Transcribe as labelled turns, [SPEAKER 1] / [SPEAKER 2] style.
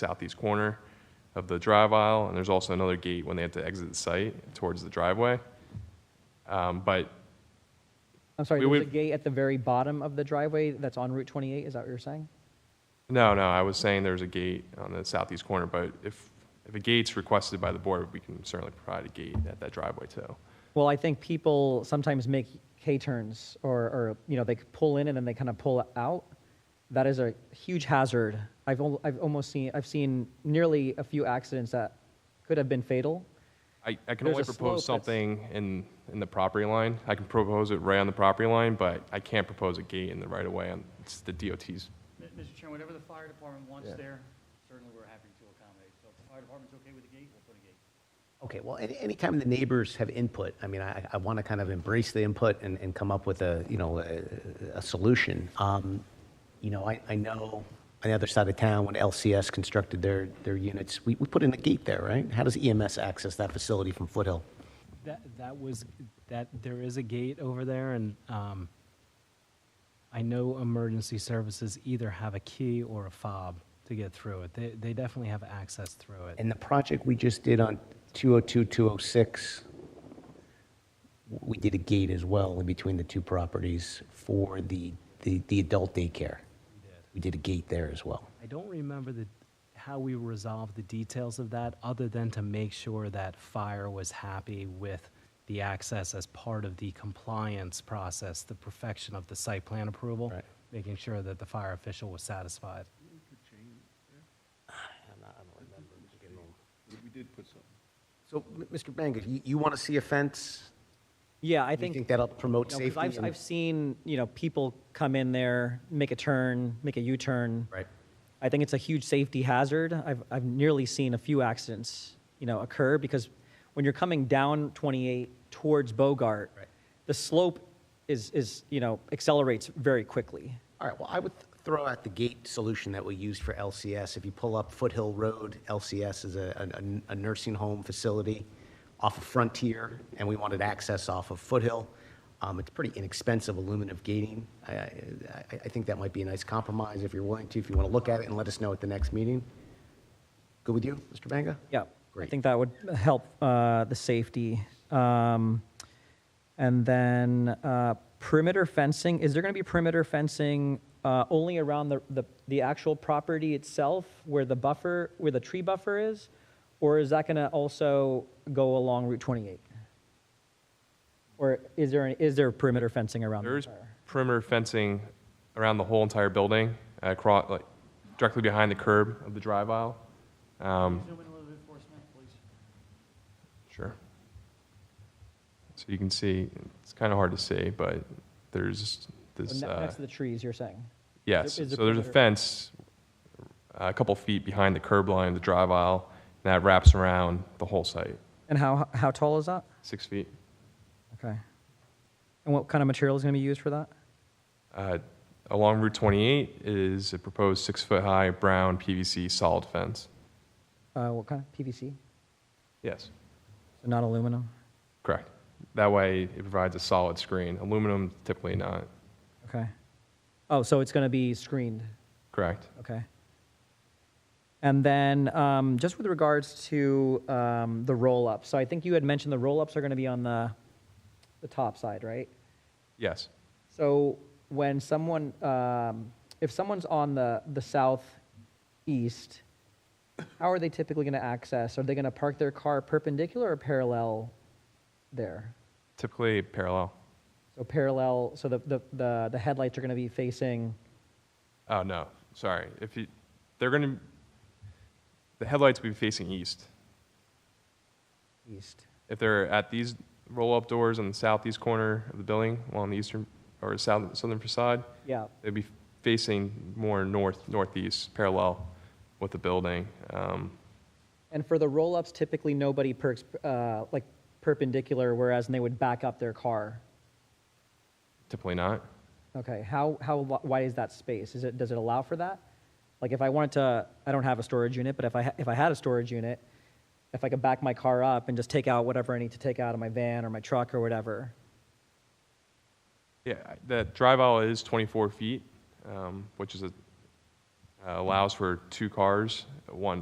[SPEAKER 1] southeast corner of the drive aisle, and there's also another gate when they have to exit the site towards the driveway. Um, But
[SPEAKER 2] I'm sorry,
[SPEAKER 1] We
[SPEAKER 2] there's a
[SPEAKER 1] would-
[SPEAKER 2] gate at the very bottom of the driveway that's on Route 28, is that what you're saying?
[SPEAKER 1] No, no, I was saying there's a gate on the southeast corner, but if, if a gate's requested by the board, we can certainly provide a gate at that driveway too.
[SPEAKER 2] Well, I think people sometimes make K-turns or, or, you know, they pull in and then they kind of pull out. That is a huge hazard. I've, al- I've almost seen, I've seen nearly a few accidents that could have been fatal.
[SPEAKER 1] I, I can
[SPEAKER 2] There's
[SPEAKER 1] only
[SPEAKER 2] a slope
[SPEAKER 1] propose
[SPEAKER 2] that's-
[SPEAKER 1] something in, in the property line. I can propose it right on the property line, but I can't propose a gate in the right of way on, it's the DOT's.
[SPEAKER 3] Mi- Mr. Chairman, whatever the fire department wants there, certainly we're happy to accommodate. So if the fire department's okay with the gate, we'll put a gate.
[SPEAKER 4] Okay, well, any, anytime the neighbors have input, I mean, I, I want to kind of embrace the input and, and come up with a, you know, a, a solution. Um, you know, I, I know on the other side of town, when LCS constructed their, their units, we, we put in a gate there, right? How does EMS access that facility from Foothill?
[SPEAKER 5] That, that was, that, there is a gate over there, and um, I know emergency services either have a key or a fob to get through it. They, they definitely have access through it.
[SPEAKER 4] And the project we just did on 202, 206, we did a gate as well in between the two properties for the, the, the adult daycare. We did a gate there as well.
[SPEAKER 5] I don't remember the, how we resolved the details of that, other than to make sure that fire was happy with the access as part of the compliance process, the perfection of the site plan approval,
[SPEAKER 4] Right.
[SPEAKER 5] making sure that the fire official was satisfied.
[SPEAKER 4] So, m- Mr. Banga, you, you want to see a fence?
[SPEAKER 2] Yeah, I
[SPEAKER 4] Do you
[SPEAKER 2] think.
[SPEAKER 4] think that'll promote
[SPEAKER 2] No, 'cause
[SPEAKER 4] safety?
[SPEAKER 2] I've,
[SPEAKER 4] and-
[SPEAKER 2] I've seen, you know, people come in there, make a turn, make a U-turn.
[SPEAKER 4] Right.
[SPEAKER 2] I think it's a huge safety hazard. I've, I've nearly seen a few accidents, you know, occur because when you're coming down 28 towards Bogart,
[SPEAKER 4] Right.
[SPEAKER 2] the slope is, is, you know, accelerates very quickly.
[SPEAKER 4] All right, well, I would th- throw out the gate solution that we used for LCS. If you pull up Foothill Road, LCS is a, a- a nursing home facility off of Frontier, and we wanted access off of Foothill. Um, It's pretty inexpensive aluminum gating. I, I, I- I think that might be a nice compromise if you're willing to, if you want to look at it and let us know at the next meeting. Good with you, Mr. Banga?
[SPEAKER 2] Yeah. I
[SPEAKER 4] Great.
[SPEAKER 2] think that would help uh, the safety. Um, And then uh, perimeter fencing, is there going to be perimeter fencing uh, only around the, the the actual property itself where the buffer, where the tree buffer is? Or is that going to also go along Route 28? Or is there, an- is there perimeter fencing around? the
[SPEAKER 1] There's
[SPEAKER 2] entire-
[SPEAKER 1] perimeter fencing around the whole entire building, across, like, directly behind the curb of the drive aisle. Um,
[SPEAKER 3] Zoom in a little bit for us, Matt, please.
[SPEAKER 1] Sure. So you can see, it's kind of hard to see, but there's
[SPEAKER 2] Oh,
[SPEAKER 1] this,
[SPEAKER 2] ne-
[SPEAKER 1] uh,
[SPEAKER 2] Next to the trees, you're saying?
[SPEAKER 1] yes, so
[SPEAKER 2] is there
[SPEAKER 1] there's a
[SPEAKER 2] perimeter-
[SPEAKER 1] fence uh, a couple feet behind the curb line, of the drive aisle, and that wraps around the whole site,
[SPEAKER 2] And how, how tall is that?
[SPEAKER 1] six feet.
[SPEAKER 2] Okay. And what kind of material is going to be used for that?
[SPEAKER 1] Uh, Along Route 28 is a proposed six-foot-high brown PVC solid fence.
[SPEAKER 2] Uh, what kind? PVC?
[SPEAKER 1] Yes,
[SPEAKER 2] So not aluminum?
[SPEAKER 1] correct. That way, it provides a solid screen. Aluminum typically not,
[SPEAKER 2] Okay. Oh, so it's going to be screened?
[SPEAKER 1] correct?
[SPEAKER 2] Okay. And then um, just with regards to um, the roll-up, so I think you had mentioned the roll-ups are going to be on the, the top side, right?
[SPEAKER 1] Yes,
[SPEAKER 2] So when someone, um, if someone's on the, the southeast, how are they typically going to access? Are they going to park their car perpendicular or parallel there?
[SPEAKER 1] typically parallel.
[SPEAKER 2] So parallel, so the, the, the the headlights are going to be facing,
[SPEAKER 1] Oh, no, sorry. If you, they're going to, the headlights will be facing east.
[SPEAKER 2] East.
[SPEAKER 1] If they're at these roll-up doors on the southeast corner of the building along the eastern or south, southern facade,
[SPEAKER 2] Yeah.
[SPEAKER 1] they'd be facing more north, northeast, parallel with the building. Um,
[SPEAKER 2] And for the roll-ups, typically nobody perks, uh, like perpendicular, whereas they would back up their car.
[SPEAKER 1] Typically not.
[SPEAKER 2] Okay, how, how wi- wide is that space? Is it, does it allow for that? Like if I wanted to, I don't have a storage unit, but if I, ha- if I had a storage unit, if I could back my car up and just take out whatever I need to take out of my van or my truck or whatever,
[SPEAKER 1] Yeah, I- the drive aisle is 24 feet, um, which is a, uh, allows for two cars, one